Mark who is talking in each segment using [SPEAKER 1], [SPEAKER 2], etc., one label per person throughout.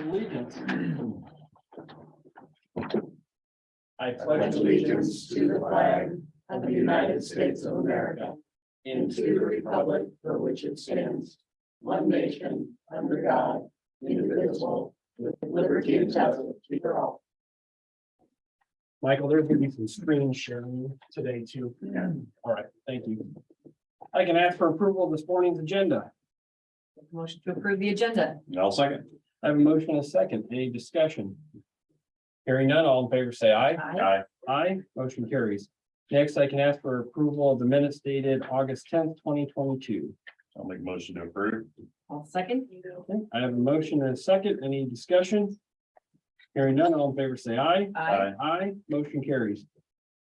[SPEAKER 1] allegiance.
[SPEAKER 2] I
[SPEAKER 3] pledge allegiance to the flag of the United States of America and to the republic for which it stands, one nation, under God, indivisible, with liberty and justice for all.
[SPEAKER 2] Michael, there's gonna be some screen sharing today too.
[SPEAKER 3] Yeah.
[SPEAKER 2] All right, thank you. I can ask for approval of this morning's agenda.
[SPEAKER 4] Motion to approve the agenda.
[SPEAKER 5] I'll second.
[SPEAKER 2] I have a motion and a second. Any discussion? Hearing none, all in favor, say aye.
[SPEAKER 4] Aye.
[SPEAKER 2] Aye, motion carries. Next, I can ask for approval of the minutes dated August tenth, twenty twenty-two.
[SPEAKER 5] I'll make a motion to approve.
[SPEAKER 4] I'll second.
[SPEAKER 2] I have a motion and a second. Any discussion? Hearing none, all in favor, say aye.
[SPEAKER 4] Aye.
[SPEAKER 2] Aye, motion carries.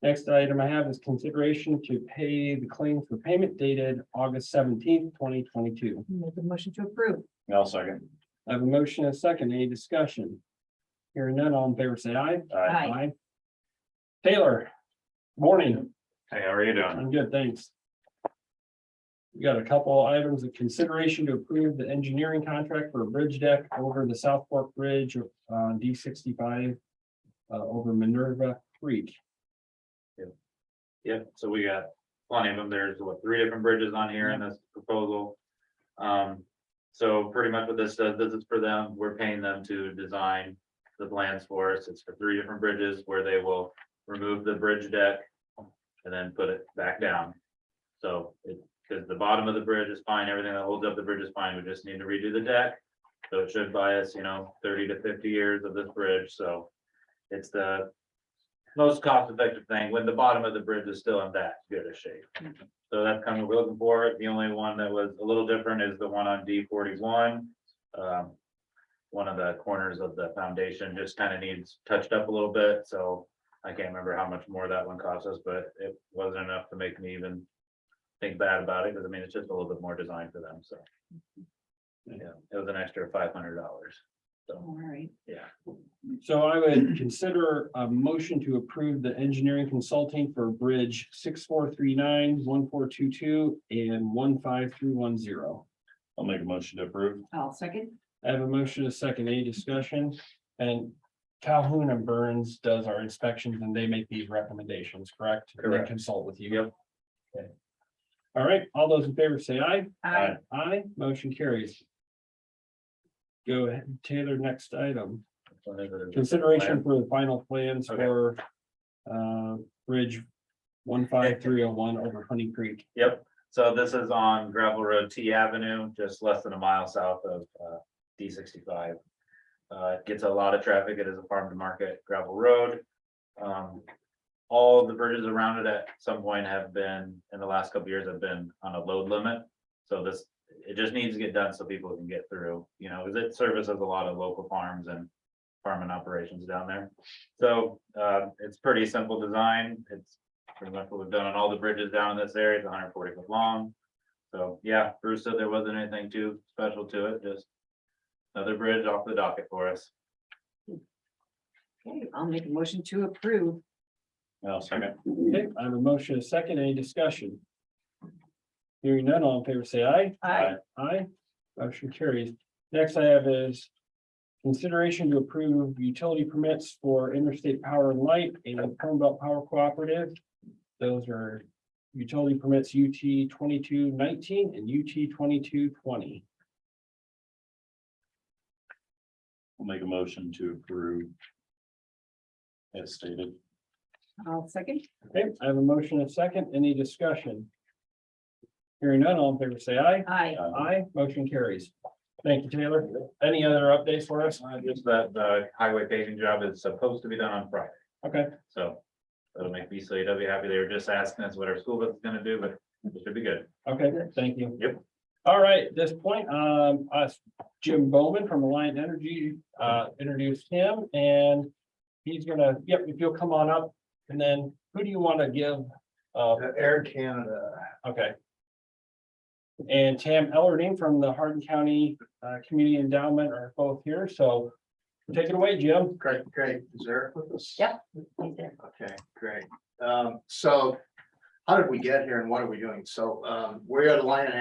[SPEAKER 2] Next item I have is consideration to pay the claim for payment dated August seventeenth, twenty twenty-two.
[SPEAKER 4] Make a motion to approve.
[SPEAKER 5] I'll second.
[SPEAKER 2] I have a motion and a second. Any discussion? Hearing none, all in favor, say aye.
[SPEAKER 5] Aye.
[SPEAKER 4] Aye.
[SPEAKER 2] Taylor, morning.
[SPEAKER 5] Hey, how are you doing?
[SPEAKER 2] I'm good, thanks. We got a couple items of consideration to approve the engineering contract for a bridge deck over the South Fork Bridge uh, on D sixty-five uh, over Minerva Creek.
[SPEAKER 6] Yep, so we got plenty of them. There's what, three different bridges on here in this proposal. Um, so pretty much what this does, this is for them, we're paying them to design the plans for us. It's for three different bridges where they will remove the bridge deck. And then put it back down. So it, because the bottom of the bridge is fine, everything that holds up the bridge is fine, we just need to redo the deck. So it should buy us, you know, thirty to fifty years of this bridge, so it's the most cost effective thing when the bottom of the bridge is still in that good a shape. So that's kind of what we're looking for. The only one that was a little different is the one on D forty-one. Um, one of the corners of the foundation just kind of needs touched up a little bit, so I can't remember how much more that one cost us, but it wasn't enough to make me even think bad about it, because I mean, it's just a little bit more design for them, so. Yeah, it was an extra five hundred dollars. So,
[SPEAKER 4] All right.
[SPEAKER 6] yeah.
[SPEAKER 2] So I would consider a motion to approve the engineering consulting for Bridge 6439, 1422, and one five three one zero.
[SPEAKER 5] I'll make a motion to approve.
[SPEAKER 4] I'll second.
[SPEAKER 2] I have a motion, a second, any discussion? And Calhoun and Burns does our inspections and they make these recommendations, correct? And they
[SPEAKER 6] Correct.
[SPEAKER 2] Consult with you. Yep. All right, all those in favor say aye.
[SPEAKER 4] Aye.
[SPEAKER 2] Aye, motion carries. Go ahead, Taylor, next item.
[SPEAKER 6] one of the-
[SPEAKER 2] Consideration for the final plans
[SPEAKER 6] Okay.
[SPEAKER 2] for uh, Bridge one five three oh one over Honey Creek.
[SPEAKER 6] Yep, so this is on gravel road T Avenue, just less than a mile south of uh, D sixty-five. Uh, it gets a lot of traffic, it is a farm to market gravel road. Um, all the bridges around it at some point have been, in the last couple years, have been on a load limit. So this, it just needs to get done so people can get through, you know, because it services a lot of local farms and farming operations down there. So, uh, it's pretty simple design, it's pretty much what we've done on all the bridges down in this area, it's hundred forty foot long. So, yeah, Bruce said there wasn't anything too special to it, just another bridge off the docket for us.
[SPEAKER 4] Okay, I'll make a motion to approve.
[SPEAKER 5] I'll second.
[SPEAKER 2] Okay, I have a motion, a second, any discussion? Hearing none, all in favor, say aye.
[SPEAKER 4] Aye.
[SPEAKER 2] Aye, motion carries. Next I have is consideration to approve utility permits for Interstate Power and Light and Belt Power Cooperative. Those are utility permits UT twenty-two nineteen and UT twenty-two twenty.
[SPEAKER 5] I'll make a motion to approve. As stated.
[SPEAKER 4] I'll second.
[SPEAKER 2] Okay, I have a motion, a second, any discussion? Hearing none, all in favor, say aye.
[SPEAKER 4] Aye.
[SPEAKER 2] Aye, motion carries. Thank you, Taylor. Any other updates for us?
[SPEAKER 6] Uh, just that the highway paving job is supposed to be done on Friday,
[SPEAKER 2] Okay,
[SPEAKER 6] so that'll make BCAW happy, they were just asking us what our school is gonna do, but it should be good.
[SPEAKER 2] okay, thank you.
[SPEAKER 6] Yep.
[SPEAKER 2] All right, at this point, um, us, Jim Bowman from Alliant Energy, uh, introduced him and he's gonna, yep, if you'll come on up. And then who do you wanna give? Uh,
[SPEAKER 3] Air Canada.
[SPEAKER 2] okay. And Tam Ellerding from the Hardin County, uh, Community Endowment are both here, so take it away, Jim.
[SPEAKER 3] Great, great. Is Eric with us?
[SPEAKER 4] Yep. He's there.
[SPEAKER 3] Okay, great. Um, so how did we get here and what are we doing? So, um, we're at Lion